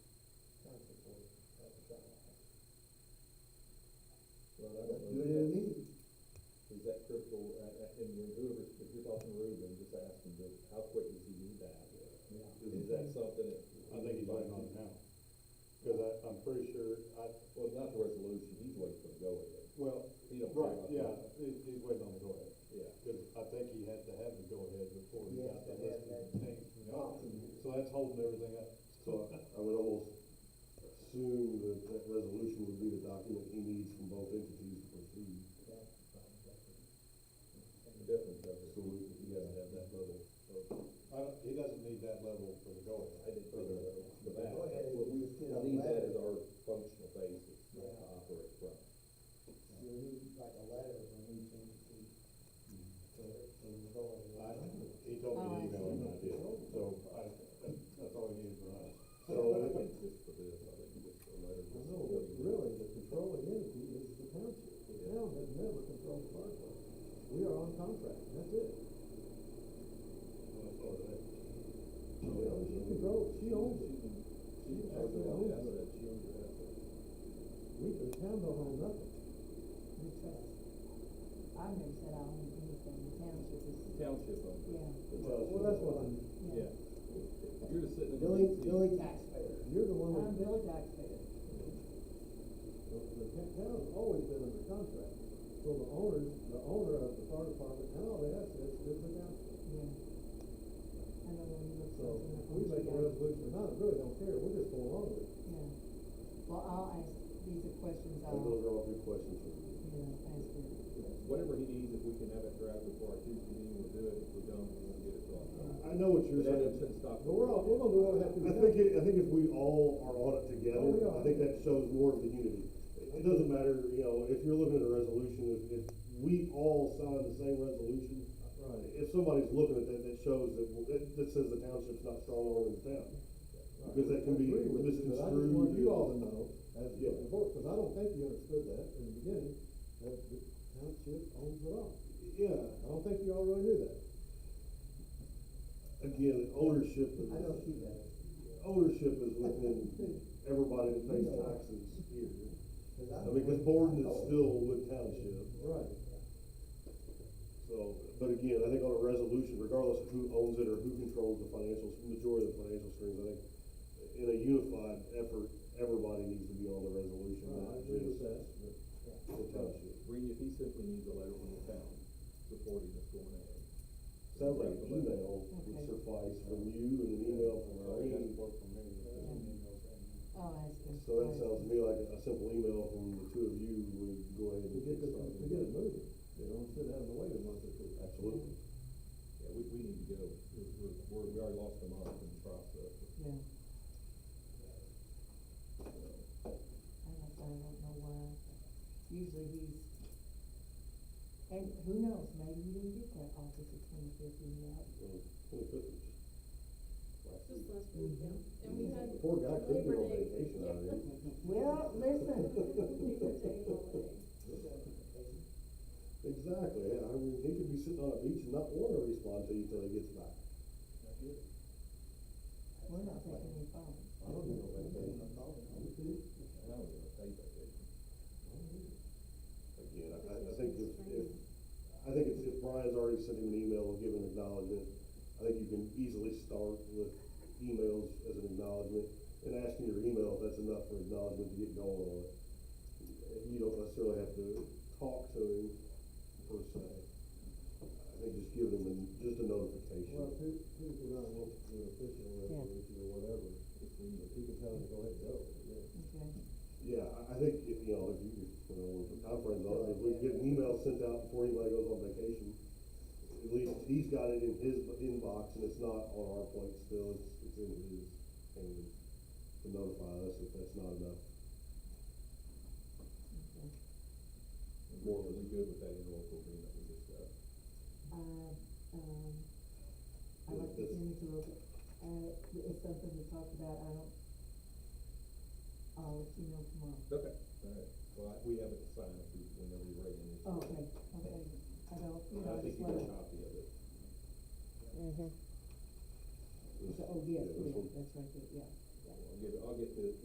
pretty sure, I, Well, not the resolution, he's waiting for the go ahead. well, He don't care right, about yeah, that. he, he's waiting on the go ahead. Yeah. Cause I think he had to have the go ahead before he Yes, got the they had listing that. change from the auction. So that's holding everything up. So I would almost assume that that resolution would be the document he needs from both entities to proceed. Definitely does. So we, you gotta have that level of, I don't, he doesn't need that level for the go I ahead. didn't think of that. The back, Go ahead, that's what we, just get I on need that that. as our functional basis to Yeah. operate from. You'll need like a letter from each entity to, to go in. I, he told me to Oh, I email him, see. I did, so I, that's all he needed from us. So I think just for this, I think just a letter. No, but really, the controlling entity is the township. The town has never controlled the park. We are on contract, and that's it. She owns, she controls, she owns it. She She has actually her own owns it. asset, she owns her asset. We, the town don't own nothing. We trust. I never said I owned anything, the township is, Township owns it. yeah, Well, that's what I'm, yeah. Yeah. You're just sitting in. the Billy, back seat. Billy taxpayer. you're the one that, I'm Billy taxpayer. the, the ta- town's always been under contract. So the owners, the owner of the fire department and all the assets is the township. yeah. I know when you look So something up. we make a resolution or not, I really don't care, we're just going along with it. Yeah, well, I'll ask, these are questions I I'll, think those you are all good questions for you. know, ask her. Whatever he needs, if we can have it drafted before our Tuesday meeting, we'll do it. If we don't, we won't get it brought up. I know what But that shouldn't stop. But we're all, we're gonna do what we have to do. I think, it- I think if we all are on it together, Oh, we I are. think that shows more of the unity. It doesn't matter, you know, if you're looking at a resolution, if, if we all sign the same resolution, Right. if somebody's looking at that, that shows that, well, that, that says the township's not strong arm in the town. Because that can be I agree with you, But I just misconstrued. want you all to know, as you Yeah. report, because I don't think you understood that in the beginning, that the township owns it all. Yeah, I don't think you all really knew that. again, ownership I know is, she does, ownership is within everybody that pays taxes here. cause I. I mean, because Borden is still with township. Right. So, but again, I think on a resolution, regardless of who owns it or who controls the financials, majority of the financial strings, I think in a unified effort, everybody needs to be on the resolution. not just that, but. The township. Reed, if he simply needs a letter from the town supporting us going ahead. Sounds like an email would Okay. suffice from you and an email from Irene. I'll ask her. So that sounds to me like a simple email from the two of you would go ahead To and get get this, started. to get it moving, you know, instead of having to wait a month or two. Absolutely. Yeah, we, we need to go, we're, we're, we're- we already lost a month in the process. Yeah, so. I don't, I don't know why, usually he's, and who knows, maybe you didn't get that office at twenty-fifth email. Just last week, yeah, and we had. The Mm-hmm. poor guy could be Labor on Day- vacation yeah. already. Well, listen, Labor Day holiday. Exactly, yeah, I mean, he could be sitting on a beach and not want to respond to you till he gets back. we're not taking any phones. I don't know, I'm but, getting a phone call. And I don't even take vacation. Again, I, I think if, if, I think it's, if Brian's already sent him an email and given acknowledgement, I think you can easily start with emails as an acknowledgement, and asking your email if that's enough for acknowledgement to get going on it. You don't necessarily have to talk to him per se. I think just give him an- just a notification. well, two, two, if you're not, want to do an official resolution or whatever, if we, if you can tell them to go ahead and go, yeah. Okay, Yeah, I, I think, if, you know, if you, if, you know, if the conference, on, if we get an email sent out before anybody goes on vacation, at least he's got it in his inbox, and it's not on our plate still, it's, it's in his hands to notify us if that's not enough. okay. More, are we good with that interlocal agreement we discussed? Uh, um, I like the image a little bit, uh, it's something we talked about, I don't, I'll let you know tomorrow. Okay. All right, well, I- we haven't signed it, we, whenever you're ready. and it's- Oh, Okay, okay, I don't, you And know, I I think just you got a wanna, copy of it. oh, yes, Yeah, yes, this one. that's right, there, oh, yeah. I'll get, I'll get the,